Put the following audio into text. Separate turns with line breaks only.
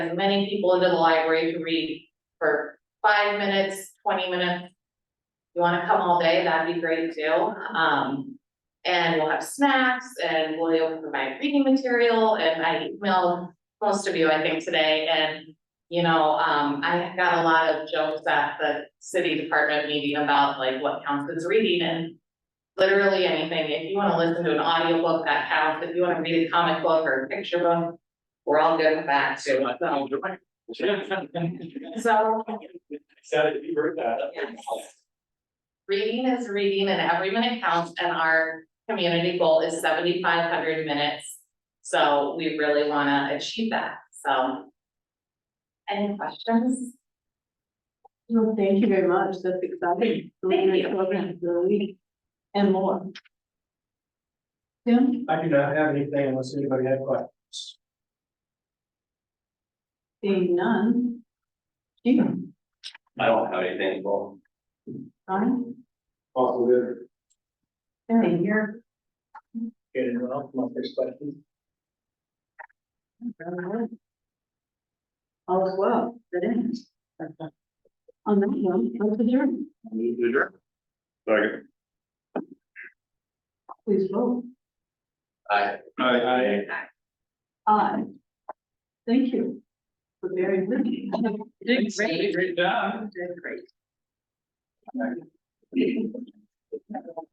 as many people into the library to read for five minutes, twenty minutes. You wanna come all day, that'd be great too, um, and we'll have snacks and we'll provide reading material and I emailed most of you, I think, today and. You know, um, I got a lot of jokes at the city department meeting about like what counts as reading and. Literally anything, if you wanna listen to an audiobook, that counts, if you wanna read a comic book or a picture book, we're all good with that
So
too.
I thought, you're right.
So,
Excited to be heard that.
Yes. reading is reading and every minute counts and our community goal is seventy-five hundred minutes. So we really wanna achieve that, so. Any questions?
Well, thank you very much, that's exciting.
Thank you.
you. And more. Tim,
I do not have anything unless anybody had questions.
seeing none. Jim,
I don't have anything, well,
Ryan,
Also, good.
Sarah, you're.
Get it well, my first question.
All is well, that ends. On that note, let's adjourn,
move to adjourn. Sorry.
please vote.
Aye.
I,
Aye. Thank you. For very good. Did
Great job.
Did great.